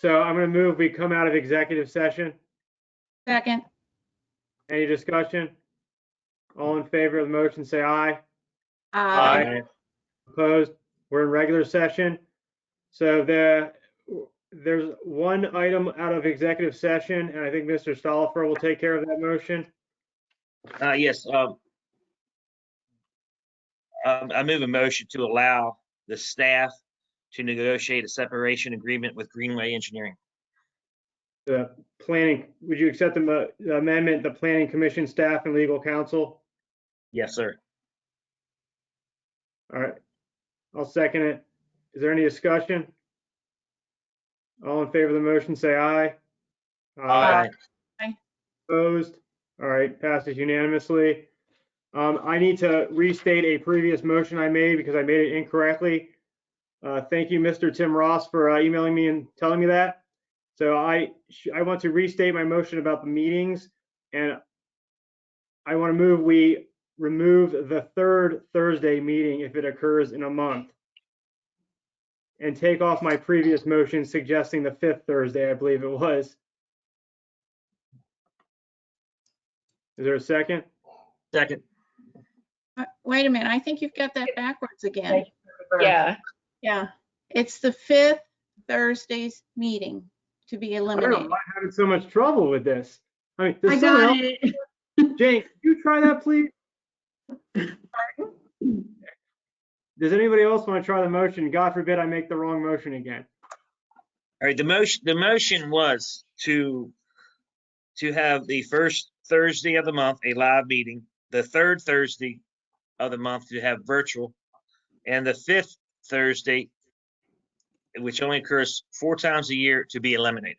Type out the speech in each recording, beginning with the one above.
So I'm going to move, we come out of executive session. Second, Any discussion? All in favor of the motion, say aye. aye. Opposed? We're in regular session. So the, there's one item out of executive session, and I think Mr. Stolifer will take care of that motion. Uh, yes, um. Um, I move a motion to allow the staff to negotiate a separation agreement with Greenway Engineering. The planning, would you accept the mo- the amendment, the planning commission staff and legal counsel? Yes, sir. All right. I'll second it. Is there any discussion? All in favor of the motion, say aye. Aye. Opposed? All right, passes unanimously. Um, I need to restate a previous motion I made because I made it incorrectly. Uh, thank you, Mr. Tim Ross, for uh, emailing me and telling me that. So I, sh- I want to restate my motion about the meetings and I want to move, we remove the third Thursday meeting if it occurs in a month. And take off my previous motion suggesting the fifth Thursday, I believe it was. Is there a second? Second, Uh, Wait a minute, I think you've got that backwards again. Yeah, Yeah, it's the fifth Thursday's meeting to be I don't know eliminated. why I'm having so much trouble with this. I mean, I there's someone got else. it. Jane, could you try that, please? Does anybody else want to try the motion? God forbid I make the wrong motion again. all right, the motion, the motion was to. To have the first Thursday of the month, a live meeting, the third Thursday of the month to have virtual. And the fifth Thursday, which only occurs four times a year, to be eliminated.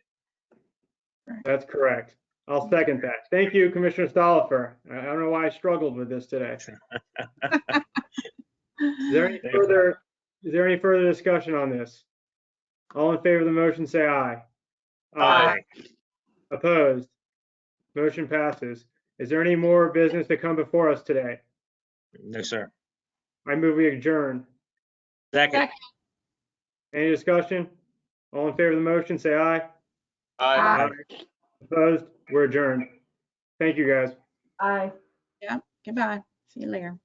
That's correct. I'll second that. Thank you, Commissioner Stolifer. I I don't know why I struggled with this today. Is there any Thank you. further, is there any further discussion on this? All in favor of the motion, say aye. Opposed? Motion passes. Is there any more business to come before us today? No, sir. I move we adjourn. Second. Any discussion? All in favor of the motion, say aye. Aye. Opposed? We're adjourned. Thank you, guys. Aye. Goodbye, see you later.